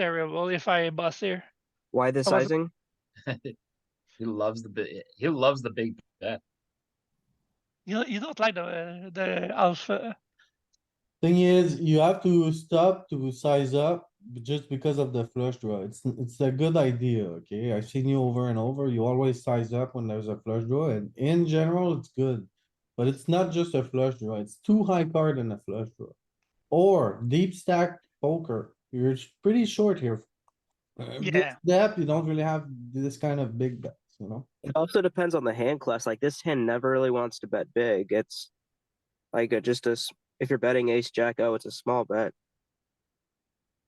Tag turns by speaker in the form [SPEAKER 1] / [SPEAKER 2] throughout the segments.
[SPEAKER 1] terrible if I bust here.
[SPEAKER 2] Why the
[SPEAKER 1] I wasn't-
[SPEAKER 2] sizing?
[SPEAKER 3] he loves the big. He loves the big bet.
[SPEAKER 1] You you don't like the uh, the alpha.
[SPEAKER 4] Thing is, you have to stop to size up just because of the flush draw. It's, it's a good idea, okay? I've seen you over and over. You always size up when there's a flush draw and in general, it's good. But it's not just a flush draw. It's two high card and a flush draw. Or deep stack poker. You're sh- pretty short here. Uh, this
[SPEAKER 1] Yeah.
[SPEAKER 4] Depth, you don't really have this kind of big bets, you know?
[SPEAKER 2] It also depends on the hand class. Like this hand never really wants to bet big. It's like a, just a s if you're betting ace jack oh it's a small bet.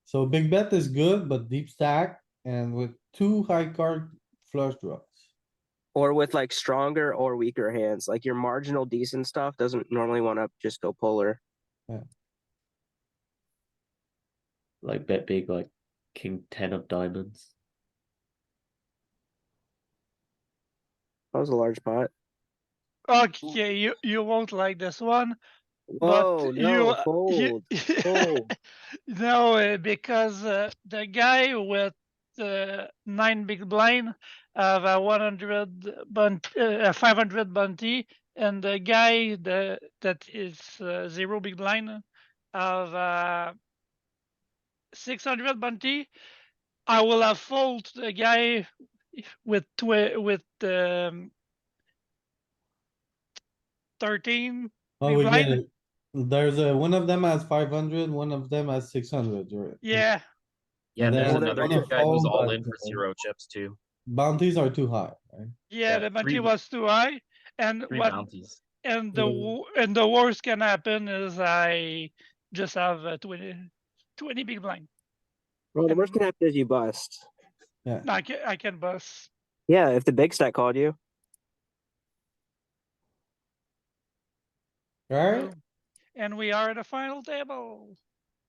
[SPEAKER 4] So big bet is good, but deep stack and with two high card flush draws.
[SPEAKER 2] Or with like stronger or weaker hands. Like your marginal decent stuff doesn't normally want to just go polar.
[SPEAKER 5] Like bet big, like king ten of diamonds.
[SPEAKER 2] That was a large pot.
[SPEAKER 1] Okay, you you won't like this one.
[SPEAKER 2] Whoa,
[SPEAKER 1] but
[SPEAKER 2] Oh, no,
[SPEAKER 1] you,
[SPEAKER 2] fold.
[SPEAKER 1] you-
[SPEAKER 2] fold.
[SPEAKER 1] no, uh, because uh, the guy with uh, nine big blind have a 100 bunt, uh, a 500 bounty, and the guy the, that is uh, zero big blind have a 600 bounty. I will have fold the guy with twi- with um, 13
[SPEAKER 4] Oh,
[SPEAKER 1] Big
[SPEAKER 4] we get
[SPEAKER 1] blind?
[SPEAKER 4] it. There's a, one of them has 500, one of them has six hundred, right?
[SPEAKER 1] yeah
[SPEAKER 3] Yeah, and
[SPEAKER 4] And
[SPEAKER 3] there's
[SPEAKER 2] then-
[SPEAKER 3] another
[SPEAKER 2] Well,
[SPEAKER 3] guy who's
[SPEAKER 4] they're
[SPEAKER 3] all
[SPEAKER 4] all
[SPEAKER 3] in for
[SPEAKER 4] bad.
[SPEAKER 3] zero chips too.
[SPEAKER 4] Bounties are too high, right?
[SPEAKER 1] Yeah,
[SPEAKER 3] Yeah,
[SPEAKER 1] the
[SPEAKER 3] three
[SPEAKER 1] bounty
[SPEAKER 3] wo-
[SPEAKER 1] was too high, and
[SPEAKER 3] Three Mm-hmm.
[SPEAKER 1] what
[SPEAKER 3] bounties.
[SPEAKER 1] and the
[SPEAKER 4] Mm.
[SPEAKER 1] wo- and the worst can happen is I just have uh, 20, 20 big blind.
[SPEAKER 2] Well, the worst can happen is you bust.
[SPEAKER 1] No, I can I can bust.
[SPEAKER 2] Yeah, if the big stack called you.
[SPEAKER 4] Right?
[SPEAKER 1] so- And we are at the final table.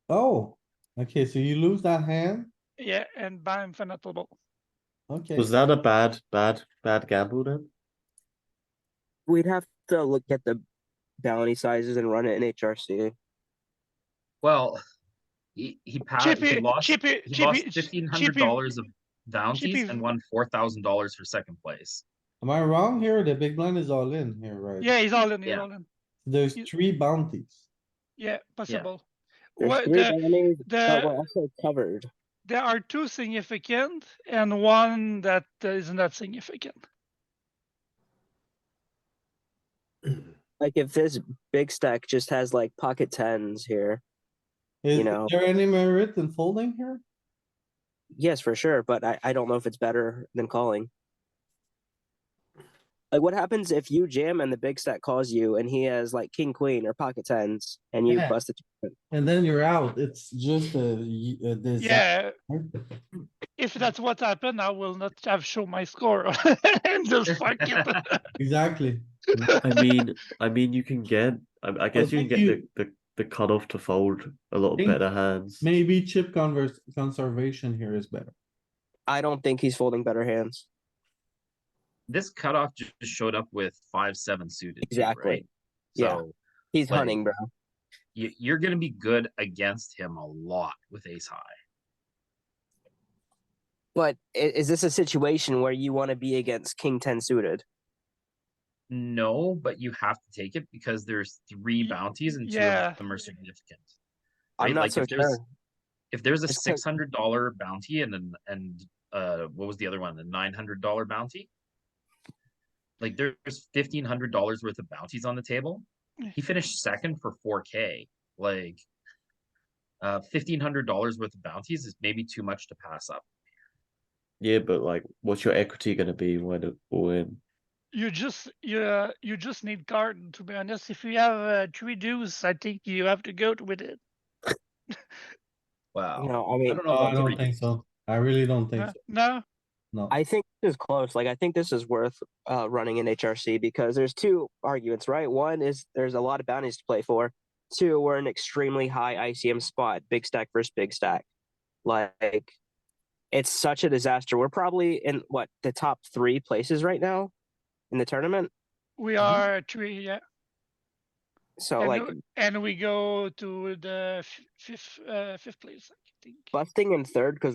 [SPEAKER 4] Oh, okay, so you lose that hand?
[SPEAKER 1] Yeah, and by infinite table.
[SPEAKER 4] Okay.
[SPEAKER 5] Was that a bad, bad, bad gamble then?
[SPEAKER 2] We'd have to look at the bounty sizes and run it in HRC.
[SPEAKER 3] Well, he he passed. Ah, he
[SPEAKER 1] Chippy,
[SPEAKER 3] lost.
[SPEAKER 1] chippy,
[SPEAKER 3] he
[SPEAKER 1] chippy,
[SPEAKER 3] lost
[SPEAKER 1] ch-
[SPEAKER 3] fifteen hundred
[SPEAKER 1] chippy-
[SPEAKER 3] dollars of bounties
[SPEAKER 1] Chippy-
[SPEAKER 3] and won four thousand dollars for second place.
[SPEAKER 4] Am I wrong here? The big blind is all in here, right?
[SPEAKER 1] Yeah, he's all in. He's
[SPEAKER 3] Yeah.
[SPEAKER 1] all in.
[SPEAKER 4] There's
[SPEAKER 1] you-
[SPEAKER 4] three bounties.
[SPEAKER 1] Yeah, possible.
[SPEAKER 2] There's
[SPEAKER 1] What
[SPEAKER 2] three Oh,
[SPEAKER 1] the,
[SPEAKER 2] bounties that
[SPEAKER 1] the-
[SPEAKER 2] were also covered.
[SPEAKER 1] there are two significant and one that is not significant.
[SPEAKER 2] Like if this big stack just has like pocket tens here,
[SPEAKER 4] Is
[SPEAKER 2] know.
[SPEAKER 4] there any merit in folding here?
[SPEAKER 2] yes, for sure. But I, I don't know if it's better than calling. Like what happens if you jam and the big stack calls you and he has like king queen or pocket tens and you
[SPEAKER 4] Yeah.
[SPEAKER 2] bust it?
[SPEAKER 4] And then you're out. It's just a, y- a disaster.
[SPEAKER 1] Yeah. If that's what happened, I will not have shown my score and just fuck it.
[SPEAKER 4] Exactly.
[SPEAKER 5] I mean, I mean, you can get. I, I guess you
[SPEAKER 4] think
[SPEAKER 5] can get
[SPEAKER 4] you-
[SPEAKER 5] the, the the cutoff to fold a lot
[SPEAKER 4] Think-
[SPEAKER 5] better hands.
[SPEAKER 4] Maybe chip converse, conservation here is better.
[SPEAKER 2] I don't think he's folding better hands.
[SPEAKER 3] This cutoff ju- just showed up with five seven suited. too,
[SPEAKER 2] Exactly.
[SPEAKER 3] right?
[SPEAKER 2] Yeah.
[SPEAKER 3] So
[SPEAKER 2] He's
[SPEAKER 3] Like-
[SPEAKER 2] hunting, bro.
[SPEAKER 3] you, you're gonna be good against him a lot with ace high.
[SPEAKER 2] But i- is this a situation where you want to be against king ten suited?
[SPEAKER 3] No, but you have to take it because there's three
[SPEAKER 1] Y-
[SPEAKER 3] bounties and two
[SPEAKER 1] yeah.
[SPEAKER 3] of them are significant.
[SPEAKER 2] I'm
[SPEAKER 3] right?
[SPEAKER 2] not
[SPEAKER 3] Like,
[SPEAKER 2] so
[SPEAKER 3] if there's-
[SPEAKER 2] sure.
[SPEAKER 3] If there's a
[SPEAKER 2] It's like-
[SPEAKER 3] six hundred dollar bounty and an and uh what was the other one? The nine hundred dollar bounty? Like there's fifteen hundred dollars worth of bounties on the table. He finished second for four K. Like uh fifteen hundred dollars worth of bounties is maybe too much to pass up.
[SPEAKER 5] Yeah, but like, what's your equity going to be when it all in?
[SPEAKER 1] You just you uh, you just need card to be honest. If you have uh, three deuce, I think you have to go with it.
[SPEAKER 3] Wow.
[SPEAKER 2] No, I
[SPEAKER 3] I
[SPEAKER 2] mean,
[SPEAKER 3] don't know. if
[SPEAKER 4] Oh, I
[SPEAKER 3] that's
[SPEAKER 4] don't
[SPEAKER 3] pretty-
[SPEAKER 4] think so. I really don't think
[SPEAKER 1] No,
[SPEAKER 4] so.
[SPEAKER 1] no?
[SPEAKER 4] No.
[SPEAKER 2] I think this is close. Like, I think this is worth uh, running in HRC because there's two arguments, right? One is there's a lot of bounties to play for. Two, we're an extremely high ICM spot, big stack versus big stack. Like, it's such a disaster. We're probably in what the top three places right now in the tournament.
[SPEAKER 1] we are three. Yeah,
[SPEAKER 2] So
[SPEAKER 1] And
[SPEAKER 2] like
[SPEAKER 1] w- and we go to the f- fifth uh, fifth place, I think.
[SPEAKER 2] busting in third because